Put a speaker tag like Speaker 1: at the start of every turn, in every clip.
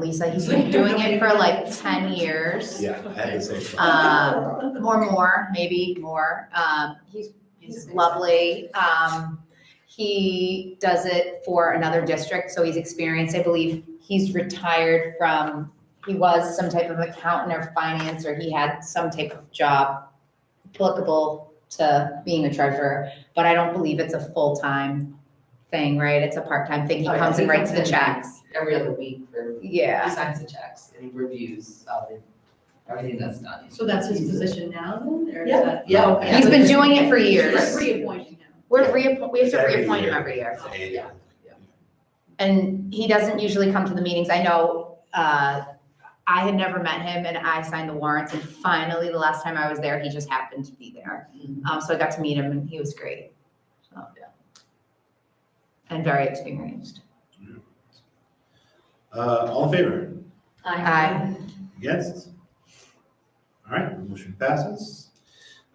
Speaker 1: Lisa, he's been doing it for like ten years.
Speaker 2: Yeah, I had the same. thought.
Speaker 1: Um, or more, maybe more. Um, he's, he's lovely. Um, he does it for another district, so he's experienced, I believe, he's retired from, he was some type of accountant or finance, or he had some type of job applicable to being a treasurer, but I don't believe it's a full-time thing, right? It's a part-time thing. He
Speaker 3: Oh, yeah,
Speaker 1: comes
Speaker 3: he
Speaker 1: and writes
Speaker 3: comes
Speaker 1: the
Speaker 3: in.
Speaker 1: checks.
Speaker 3: every other week for, he
Speaker 1: Yeah.
Speaker 3: signs the checks and reviews all the, everything that's done.
Speaker 4: So that's his position now then, or is
Speaker 3: Yeah.
Speaker 4: that?
Speaker 3: Yeah, okay.
Speaker 1: He's been doing it for years.
Speaker 4: Just reappointing him.
Speaker 1: We're reappoint, we have to
Speaker 2: Every
Speaker 1: reappoint him
Speaker 2: year.
Speaker 1: every year.
Speaker 2: It's annual.
Speaker 1: And he doesn't usually come to the meetings. I know, uh, I had never met him and I signed the warrants and finally the last time I was there, he just happened to be there.
Speaker 2: Mm-hmm.
Speaker 1: Um, so I got to meet him and he was great. So, yeah. And very experienced.
Speaker 2: Uh, all in favor?
Speaker 1: Aye.
Speaker 2: Against? All right, the motion passes.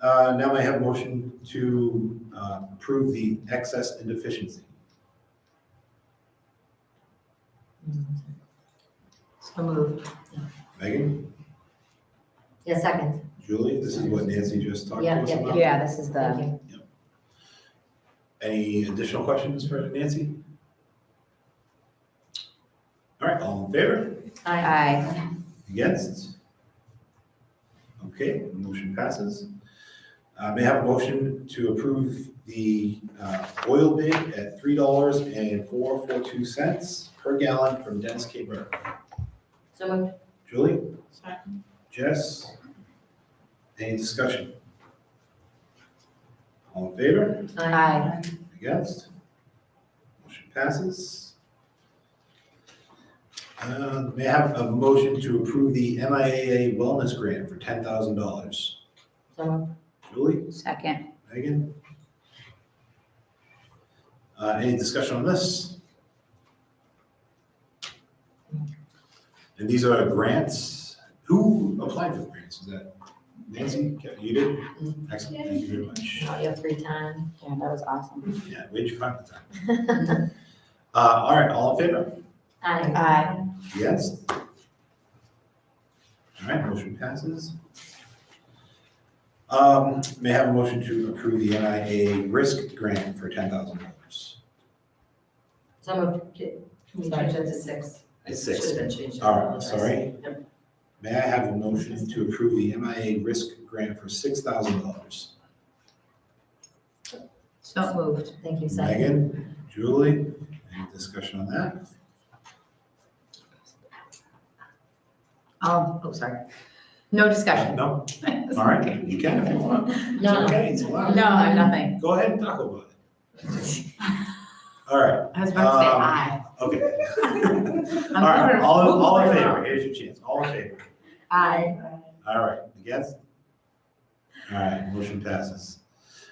Speaker 2: Uh, now I have a motion to, uh, approve the excess and deficiency.
Speaker 1: So moved.
Speaker 2: Megan,
Speaker 5: Yeah, second.
Speaker 2: Julie, this is what Nancy just talked to
Speaker 5: Yeah,
Speaker 2: us
Speaker 5: yeah,
Speaker 2: about.
Speaker 1: Yeah, this is the.
Speaker 2: Any additional questions for Nancy? All right, all in favor?
Speaker 5: Aye.
Speaker 1: Aye.
Speaker 2: Against? Okay, motion passes. Uh, may I have a motion to approve the, uh, oil bid at three dollars and four four two cents per gallon from Dennis K. Burke?
Speaker 5: So moved.
Speaker 2: Julie?
Speaker 4: Second.
Speaker 2: Jess? Any discussion? All in favor?
Speaker 1: Aye.
Speaker 2: Against? Motion passes. Uh, May I have a motion to approve the MIAA Wellness Grant for ten thousand dollars?
Speaker 5: So moved.
Speaker 2: Julie,
Speaker 1: Second.
Speaker 2: Megan? Uh, Any discussion on this? And these are grants. Who applied for the grants? Is that Nancy? Ke- You did? Excellent, thank you very much.
Speaker 5: Oh, you have three times.
Speaker 1: Yeah, that was awesome.
Speaker 2: Yeah, where'd you find the time? Uh, all right, all in favor?
Speaker 5: Aye.
Speaker 1: Aye.
Speaker 2: Yes? All right, motion passes. Um, may I have a motion to approve the NIA risk grant for ten thousand dollars?
Speaker 5: So moved.
Speaker 3: Can we change that to six?
Speaker 2: It's six.
Speaker 3: Should have been changed.
Speaker 2: All right, sorry.
Speaker 3: Yep.
Speaker 2: May I have a motion to approve the MIA risk grant for six thousand dollars?
Speaker 1: So moved.
Speaker 5: Thank you, second.
Speaker 2: Megan, Julie, any discussion on that?
Speaker 1: Oh, oh, sorry. No discussion.
Speaker 2: No? All right, you can if you want. It's
Speaker 5: No,
Speaker 2: okay, it's allowed.
Speaker 1: No, I'm nothing.
Speaker 2: Go ahead and talk about it. All right,
Speaker 1: I was about to say
Speaker 2: Um,
Speaker 1: aye.
Speaker 2: okay.
Speaker 1: I'm
Speaker 2: All right,
Speaker 1: gonna
Speaker 2: all, in-
Speaker 1: move
Speaker 2: all in
Speaker 1: right
Speaker 2: favor,
Speaker 1: now.
Speaker 2: here's your chance, all in favor.
Speaker 1: Aye.
Speaker 2: All right, against? All right, motion passes.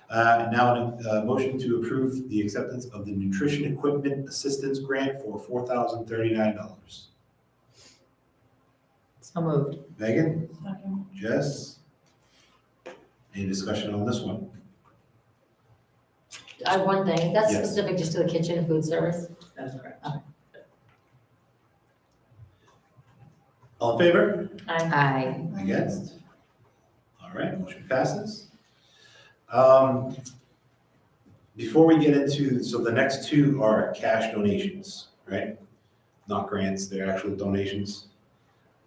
Speaker 2: Uh, now, a motion to approve the acceptance of the nutrition equipment assistance grant for four thousand thirty-nine dollars.
Speaker 1: So moved.
Speaker 2: Megan, Jess? Any discussion on this one?
Speaker 5: I have one thing. That's
Speaker 2: Yes.
Speaker 5: specific just to the kitchen and food service.
Speaker 3: That's correct.
Speaker 2: All in favor?
Speaker 5: Aye.
Speaker 1: Aye.
Speaker 2: Against? All right, motion passes. Um, Before we get into, so the next two are cash donations, right? Not grants, they're actual donations.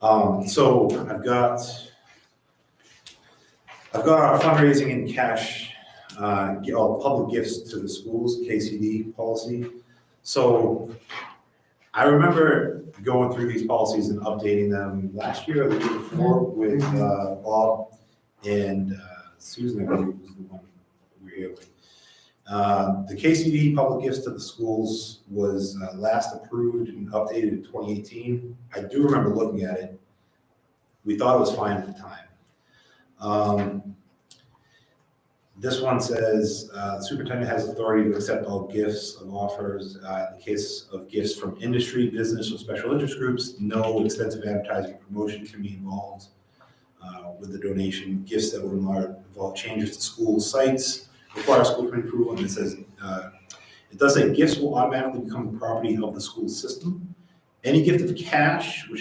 Speaker 2: Um, So I've got, I've got our fundraising and cash, uh, gi- oh, public gifts to the schools, KCD policy. So I remember going through these policies and updating them last year or the year before with uh, Bob and uh, Susan, I believe was the one we were here with. Uh, The KCD public gifts to the schools was uh, last approved and updated in 2018. I do remember looking at it. We thought it was fine at the time. Um, This one says uh, superintendent has authority to accept all gifts and offers uh, in the case of gifts from industry, business, or special interest groups. No extensive advertising promotion can be involved uh, with the donation. Gifts that would involve involve changes to school sites require school committee approval. And it says, uh, it does say gifts will automatically become the property of the school system. Any gift of cash, which